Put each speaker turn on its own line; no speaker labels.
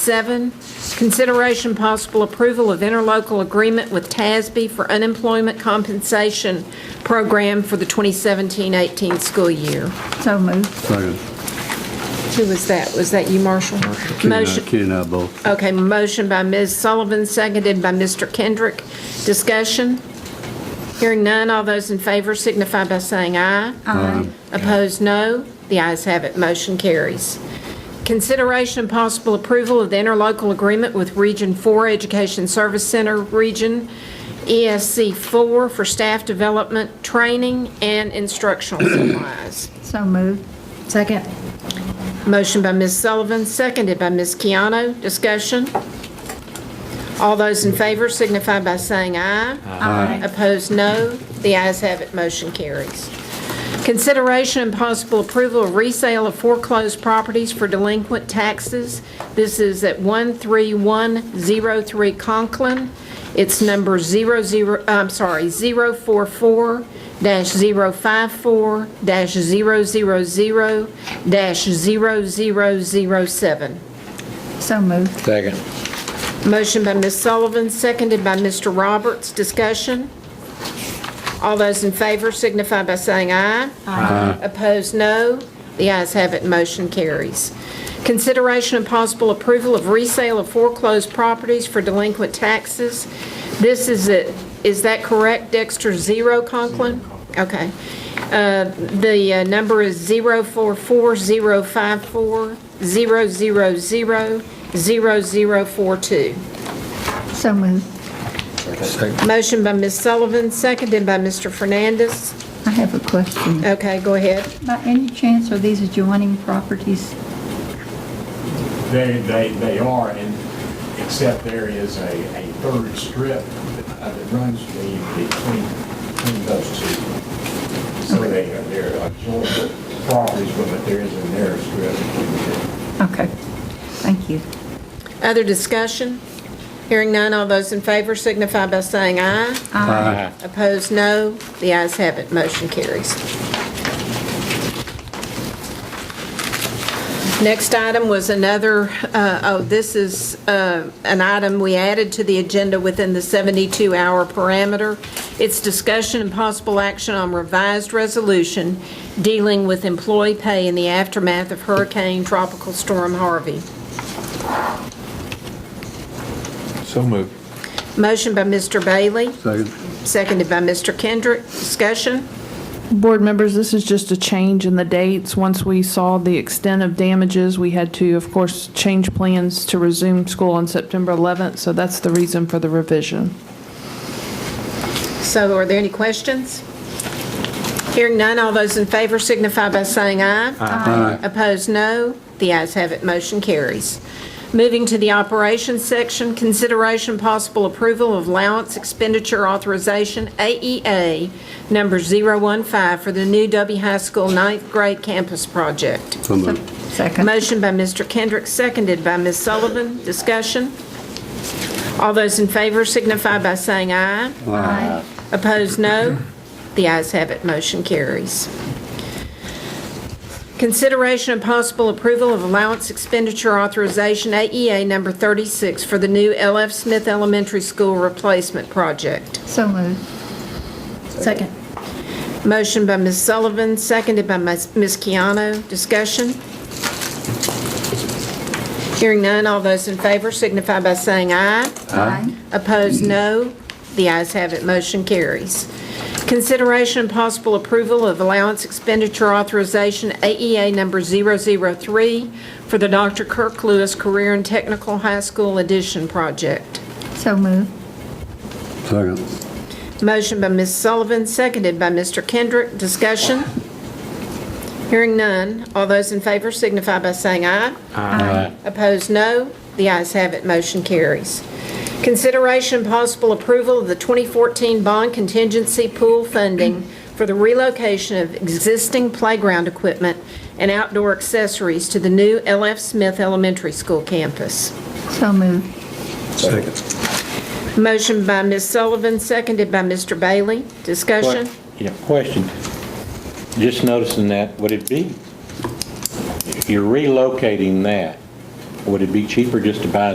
Seven, consideration possible approval of interlocal agreement with TASB for unemployment compensation program for the 2017-18 school year.
So moved.
Second.
Who was that? Was that you, Marshall?
Ken and I-
Motion-
Ken and I both.
Okay, motion by Ms. Sullivan, seconded by Mr. Kendrick. Discussion? Hearing none, all those in favor signify by saying aye. Aye. Opposed, no. The ayes have it, motion carries. Consideration and possible approval of the interlocal agreement with Region 4 Education Service Center Region E ESC 4 for staff development, training, and instructional supplies.
So moved. Second.
Motion by Ms. Sullivan, seconded by Ms. Keano. Discussion? All those in favor signify by saying aye. Aye. Opposed, no. The ayes have it, motion carries. Consideration and possible approval of resale of foreclosed properties for delinquent taxes. This is at 13103 Conklin. It's number 00, I'm sorry, 044-054-000-0007.
So moved.
Second.
Motion by Ms. Sullivan, seconded by Mr. Roberts. Discussion? All those in favor signify by saying aye. Aye. Opposed, no. The ayes have it, motion carries. Consideration and possible approval of resale of foreclosed properties for delinquent taxes. This is, it. Is that correct, Dexter? Zero Conklin? Okay. Uh, The uh, number is 0440540000042.
So moved.
Motion by Ms. Sullivan, seconded by Mr. Fernandez.
I have a question.
Okay, go ahead.
By any chance, are these adjoining properties?
They, they, they are, and except there is a, a third strip that runs the, between, between those two. So they, they're joint properties, but there is a narrow strip between the two.
Okay. Thank you.
Other discussion? Hearing none, all those in favor signify by saying aye. Aye. Opposed, no. The ayes have it, motion carries. Next item was another, uh, oh, this is uh, an item we added to the agenda within the 72-hour parameter. It's discussion and possible action on revised resolution dealing with employee pay in the aftermath of Hurricane Tropical Storm Harvey.
So moved.
Motion by Mr. Bailey,
Second.
seconded by Mr. Kendrick. Discussion?
Board members, this is just a change in the dates. Once we saw the extent of damages, we had to, of course, change plans to resume school on September 11th, so that's the reason for the revision.
So are there any questions? Hearing none, all those in favor signify by saying aye. Aye. Opposed, no. The ayes have it, motion carries. Moving to the operations section, consideration possible approval of allowance expenditure authorization, AEA, number 015, for the new W High School ninth grade campus project.
So moved.
Second.
Motion by Mr. Kendrick, seconded by Ms. Sullivan. Discussion? All those in favor signify by saying aye.
Aye.
Opposed, no. The ayes have it, motion carries. Consideration and possible approval of allowance expenditure authorization, AEA number 36, for the new L.F. Smith Elementary School replacement project.
So moved. Second.
Motion by Ms. Sullivan, seconded by Ms. Ms. Keano. Discussion? Hearing none, all those in favor signify by saying aye.
Aye.
Opposed, no. The ayes have it, motion carries. Consideration and possible approval of allowance expenditure authorization, AEA number 003, for the Dr. Kirk Lewis Career and Technical High School Addition Project.
So moved.
Second.
Motion by Ms. Sullivan, seconded by Mr. Kendrick. Discussion? Hearing none. All those in favor signify by saying aye. Aye. Opposed, no. The ayes have it, motion carries. Consideration and possible approval of the 2014 bond contingency pool funding for the relocation of existing playground equipment and outdoor accessories to the new L.F. Smith Elementary School campus.
So moved.
Second.
Motion by Ms. Sullivan, seconded by Mr. Bailey. Discussion?
Yeah, question. Just noticing that, would it be, if you're relocating that, Would it be cheaper just to buy